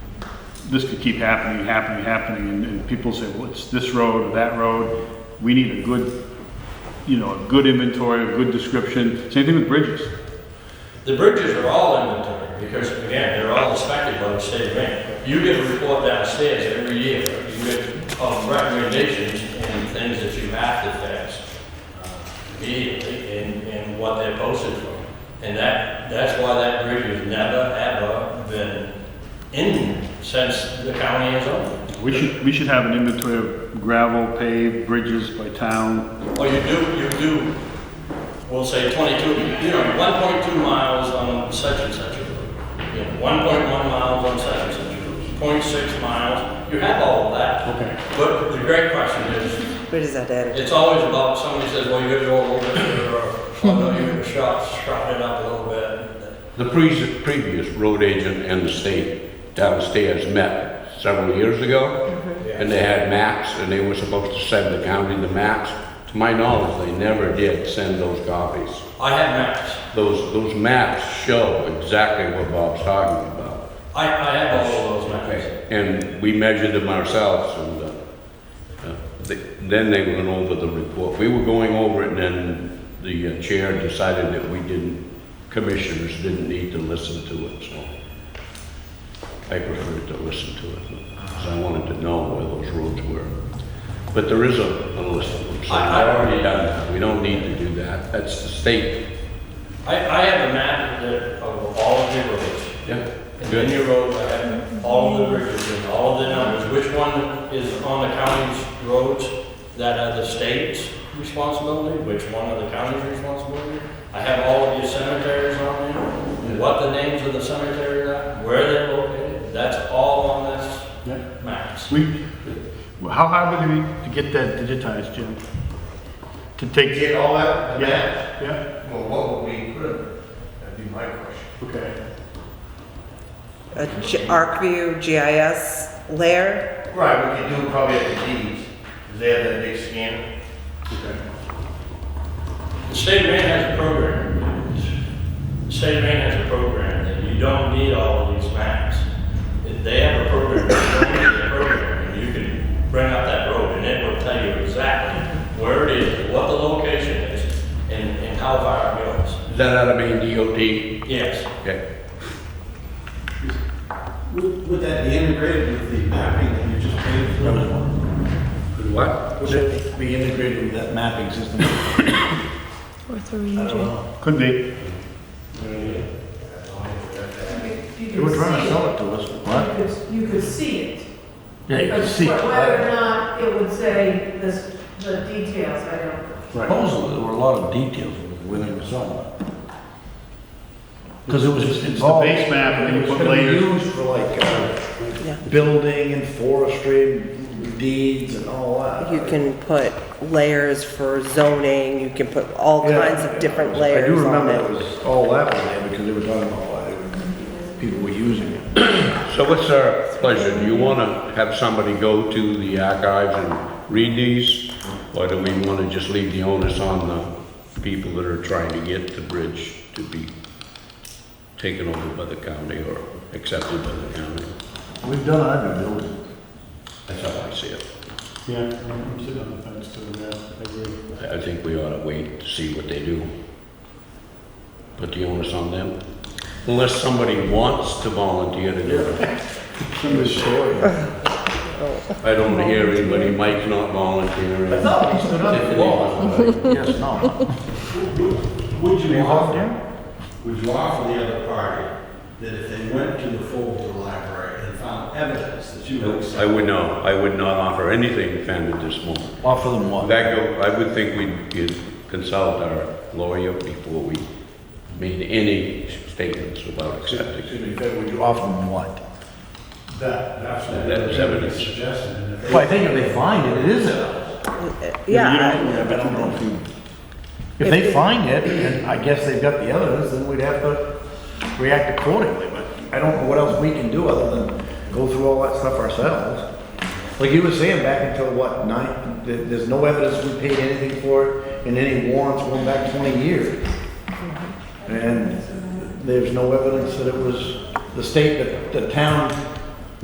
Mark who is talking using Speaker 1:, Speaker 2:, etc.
Speaker 1: this could keep happening, happening, happening, and, and people say, well, it's this road or that road. We need a good, you know, a good inventory, a good description. Same thing with bridges.
Speaker 2: The bridges are all inventory, because again, they're all inspected by the state of Maine. You get a report downstairs every year, you get um, recommendations and things that you have to fix uh, immediately, and, and what they're posted for. And that, that's why that bridge has never, ever been in since the county has owned it.
Speaker 1: We should, we should have an inventory of gravel, paved, bridges by town.
Speaker 2: Well, you do, you do, we'll say twenty-two, you know, one point two miles on such and such a road. You know, one point one miles on such and such a road, point six miles, you have all of that.
Speaker 1: Okay.
Speaker 2: But the great question is,
Speaker 3: Where does that add?
Speaker 2: it's always about, somebody says, well, you gotta go a little bit further, or, oh, no, you gotta shop, shop it up a little bit.
Speaker 4: The pre- previous road agent and the state downstairs met several years ago, and they had maps, and they were supposed to send the county the maps. To my knowledge, they never did send those copies.
Speaker 2: I have maps,
Speaker 4: Those, those maps show exactly what Bob's talking about.
Speaker 2: I, I have all of those maps.
Speaker 4: And we measured them ourselves, and uh, uh, they- then they went over the report. We were going over it, and then the uh, chair decided that we didn't, commissioners didn't need to listen to it, so I preferred to listen to it, because I wanted to know where those roads were. But there is a a list of them, so I've already done that. We don't need to do that. That's the state.
Speaker 2: I, I have a map that- of all of the roads.
Speaker 4: Yeah.
Speaker 2: And then
Speaker 4: Good.
Speaker 2: you wrote, I have all of the bridges and all of the numbers, which one is on the county's roads that are the state's responsibility, which one are the county's responsibility? I have all of your cemeteries on there, what the names of the cemeteries are, where they're located, that's all on this
Speaker 1: Yeah.
Speaker 2: map.
Speaker 1: We, well, how hard would it be to get that digitized, Jim? To
Speaker 5: You
Speaker 1: take,
Speaker 5: Get all that, the map?
Speaker 1: yeah, yeah,
Speaker 5: Well, what would we put in it? That'd be my question.
Speaker 1: okay.
Speaker 3: A G- ArcView GIS layer?
Speaker 5: Right, we could do probably at the deeds, is there that big scan?
Speaker 2: The state of Maine has a program. The state of Maine has a program that you don't need all of these maps. If They have a program, you don't need their program, and you can bring up that road, and it will tell you exactly where it is, what the location is, and, and how far it goes.
Speaker 4: Is that out of Maine DOT?
Speaker 2: Yes,
Speaker 4: Okay.
Speaker 6: Would would that be integrated with the mapping that you just paid for?
Speaker 4: What?
Speaker 6: Would it be integrated with that mapping system? I don't know.
Speaker 1: Could be.
Speaker 7: They were trying to sell it to us. What? You could see it. Yeah, you could see it. Whether or not it would say this, the details, I don't know.
Speaker 6: Supposedly, there were a lot of details when they were selling it. Because it was
Speaker 1: It's the base map and then you put layers.
Speaker 6: used for like,
Speaker 3: Yeah.
Speaker 6: uh, building and forestry deeds and all that.
Speaker 3: You can put layers for zoning, you can put all
Speaker 6: Yeah.
Speaker 3: kinds of different layers on it.
Speaker 6: I do remember it was all that was there because they were talking about why they were- people were using it.
Speaker 4: So what's our pleasure? Do you want to have somebody go to the archives and read these? Or do we want to just leave the onus on the people that are trying to get the bridge to be taken over by the county or accepted by the county?
Speaker 6: We've done our due diligence.
Speaker 4: That's how I see it.
Speaker 1: Yeah, I'm I'm sitting on the fence too, yeah, I agree.
Speaker 4: I I think we ought to wait to see what they do. Put the onus on them. Unless somebody wants to volunteer to do it. I don't hear anybody. Mike's not volunteering.
Speaker 6: I thought he stood up
Speaker 4: If
Speaker 6: for
Speaker 4: it
Speaker 6: law.
Speaker 4: is,
Speaker 6: Yes, no.
Speaker 8: Would you offer, would you offer the other party that if they went to the Fulton Library and found evidence that you would
Speaker 4: I
Speaker 8: accept?
Speaker 4: would know, I would not offer anything offended this moment.
Speaker 6: Offer them what?
Speaker 4: That go, I would think we'd get- consult our lawyer before we made any statements about accepting.
Speaker 8: Excuse me,
Speaker 6: Would you offer them what?
Speaker 8: that, that's what
Speaker 4: That was evidence.
Speaker 8: suggested, and if they-
Speaker 6: Well, I think if they find it, it is a,
Speaker 1: you
Speaker 3: Yeah,
Speaker 1: don't-
Speaker 6: but I don't know if you. If they find it, and I guess they've got the evidence, then we'd have to react accordingly, but I don't know what else we can do other than go through all that stuff ourselves. Like you were saying, back until what, nine, th- there's no evidence we paid anything for it, and any warrants going back twenty years. And there's no evidence that it was the state, that the town